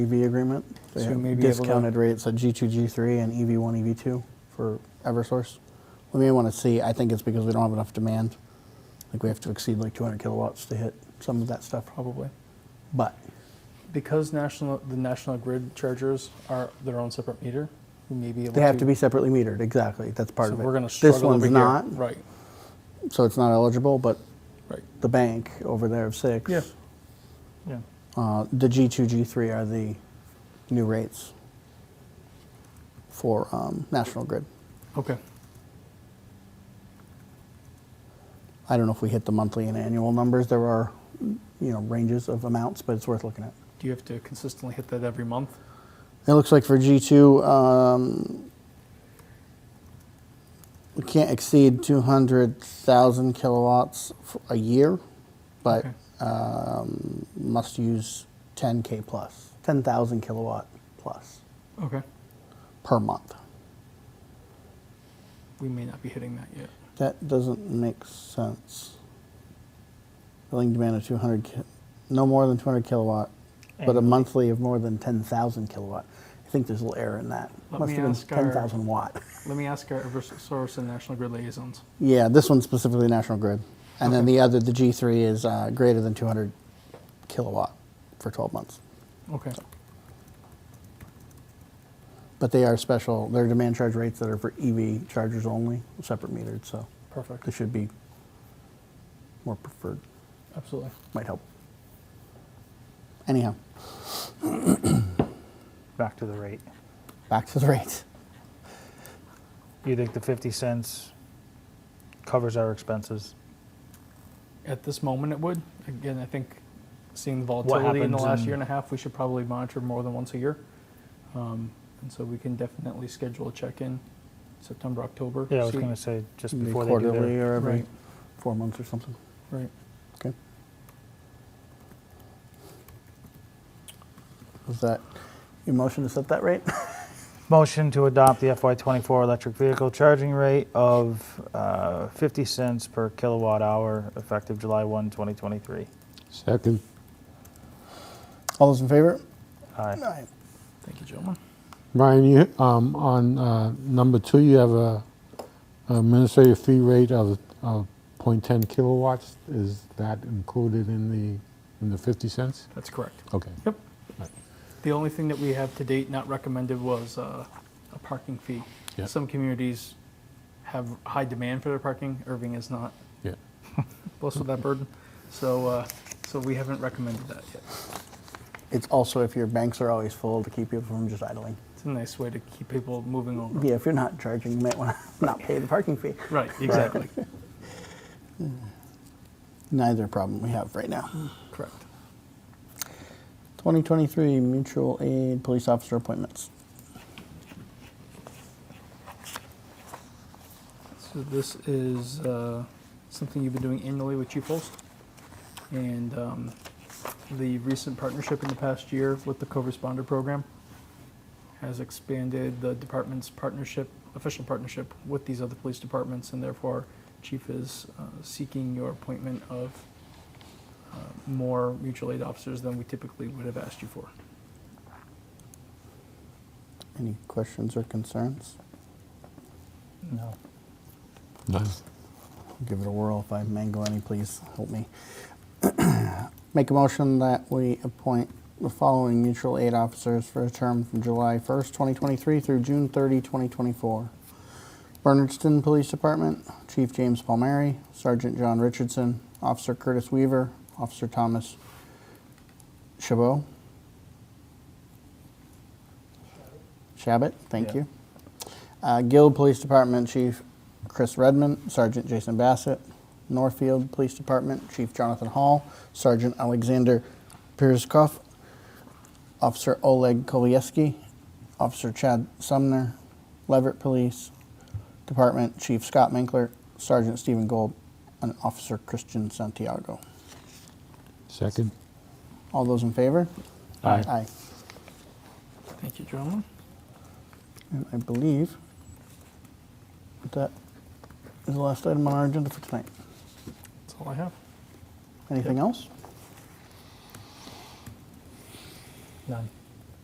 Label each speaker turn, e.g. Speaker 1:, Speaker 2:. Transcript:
Speaker 1: EV E agreement. They
Speaker 2: So
Speaker 1: have
Speaker 2: maybe able to-
Speaker 1: discounted rates at G2, G3, and E EV1, EV2 for Eversource. We may want to see, I think it's because we don't have enough demand. Like, we have to exceed like 200 kilowatts to hit some of that stuff,
Speaker 2: probably.
Speaker 1: but
Speaker 2: Because national, the national grid chargers are their own separate meter, we may be able to.
Speaker 1: they have to be separately metered, exactly, that's part
Speaker 2: So
Speaker 1: of it.
Speaker 2: we're going to struggle over
Speaker 1: This
Speaker 2: here.
Speaker 1: one's not,
Speaker 2: Right,
Speaker 1: so it's not eligible, but
Speaker 2: right.
Speaker 1: the bank over there of six.
Speaker 2: Yeah. Yeah.
Speaker 1: Uh, the G2, G3 are the new rates for um, National Grid.
Speaker 2: Okay.
Speaker 1: I don't know if we hit the monthly and annual numbers. There are, you know, ranges of amounts, but it's worth looking at.
Speaker 2: Do you have to consistently hit that every month?
Speaker 1: It looks like for G2, um, we can't exceed 200,000 kilowatts f- a year, but
Speaker 2: Okay.
Speaker 1: um, must use 10K plus, 10,000 kilowatt plus
Speaker 2: Okay.
Speaker 1: per month.
Speaker 2: We may not be hitting that yet.
Speaker 1: That doesn't make sense. Billing demand of 200, ki- no more than 200 kilowatt, but a
Speaker 2: Annually.
Speaker 1: monthly of more than 10,000 kilowatt. I think there's a little error in that.
Speaker 2: Let
Speaker 1: Must
Speaker 2: me
Speaker 1: have been
Speaker 2: ask our-
Speaker 1: 10,000 watt.
Speaker 2: Let me ask our Eversource and National Grid liaisons.
Speaker 1: Yeah, this one's specifically National Grid. And then
Speaker 2: Okay.
Speaker 1: the other, the G3 is uh, greater than 200 kilowatt for 12 months.
Speaker 2: Okay.
Speaker 1: But they are special, they're demand charge rates that are for EV chargers only, separate metered, so
Speaker 2: Perfect.
Speaker 1: they should be more preferred,
Speaker 2: Absolutely.
Speaker 1: might help. Anyhow.
Speaker 3: back to the rate.
Speaker 1: Back to the rates.
Speaker 3: You think the 50 cents covers our expenses?
Speaker 2: At this moment, it would. Again, I think seeing the volatility in the
Speaker 3: happens
Speaker 2: last
Speaker 3: in-
Speaker 2: year and a half, we should probably monitor more than once a year. Um, And so we can definitely schedule a check-in September, October.
Speaker 3: Yeah, I was
Speaker 2: see-
Speaker 3: going to say just
Speaker 1: Maybe
Speaker 3: before they do
Speaker 1: quarterly
Speaker 3: their,
Speaker 1: or every
Speaker 2: Right.
Speaker 1: four months or something.
Speaker 2: Right.
Speaker 1: Okay. Was that your motion to set that rate?
Speaker 3: motion to adopt the FY24 electric vehicle charging rate of uh, 50 cents per kilowatt hour effective July 1, 2023.
Speaker 4: Second.
Speaker 1: All those in favor?
Speaker 3: Aye.
Speaker 1: Aye.
Speaker 2: Thank you, gentlemen.
Speaker 4: Brian, you, um, on, uh, number two, you have a administrative fee rate of, of point ten kilowatts. Is that included in the, in the fifty cents?
Speaker 2: That's correct.
Speaker 4: Okay.
Speaker 2: Yep. The only thing that we have to date not recommended was uh, a parking fee.
Speaker 4: Yeah.
Speaker 2: Some communities have high demand for their parking. Irving is not
Speaker 4: Yeah.
Speaker 2: blessed with that burden. So, uh, so we haven't recommended that yet.
Speaker 1: It's also if your banks are always full to keep people from just idling.
Speaker 2: It's a nice way to keep people moving over.
Speaker 1: Yeah, if you're not charging, you might want to not pay the parking fee.
Speaker 2: Right, exactly.
Speaker 1: Neither problem we have right now.
Speaker 2: Correct.
Speaker 1: 2023 mutual aid police officer appointments.
Speaker 2: So this is uh, something you've been doing annually with Chief Holst. And um, the recent partnership in the past year with the co-responder program has expanded the department's partnership, official partnership with these other police departments, and therefore Chief is uh, seeking your appointment of uh, more mutual aid officers than we typically would have asked you for.
Speaker 1: Any questions or concerns?
Speaker 3: No.
Speaker 4: Nice.
Speaker 1: Give it a whirl if I mangle any, please help me. Make a motion that we appoint the following mutual aid officers for a term from July 1st, 2023 through June 30, 2024. Bernardston Police Department, Chief James Palmieri, Sergeant John Richardson, Officer Curtis Weaver, Officer Thomas Chabot. Shabbat, thank
Speaker 3: Yeah.
Speaker 1: you. Uh, Guild Police Department Chief Chris Redmond, Sergeant Jason Bassett, Northfield Police Department Chief Jonathan Hall, Sergeant Alexander Pierskoff, Officer Oleg Kolieski, Officer Chad Sumner, Leverett Police Department Chief Scott Minkler, Sergeant Stephen Gold, and Officer Christian Santiago.
Speaker 4: Second.
Speaker 1: All those in favor?
Speaker 4: Aye.
Speaker 1: Aye.
Speaker 2: Thank you, gentlemen.
Speaker 1: And I believe that is the last item on our agenda for tonight.
Speaker 2: That's all I have.
Speaker 1: Anything else?
Speaker 3: None.